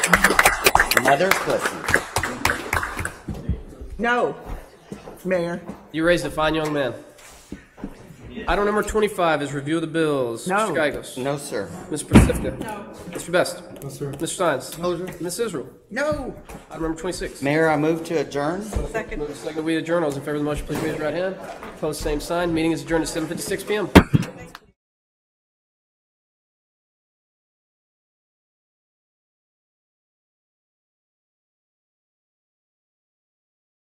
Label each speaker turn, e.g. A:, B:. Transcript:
A: Mother pussy.
B: No, Mayor.
C: You raised a fine young man. Item number 25 is review of the bills.
B: No.
C: Mr. Geigels.
A: No, sir.
C: Ms. Pacifica. Mr. Best.
D: No, sir.
C: Mr. Steins.
A: No, sir.
C: Ms. Israel.
B: No.
C: Item number 26.
A: Mayor, I move to adjourn.
B: Second.
C: Second, we adjourn. All those in favor of the motion, please raise your right hand. Opposed, same sign. Meeting is adjourned at 7:56 PM.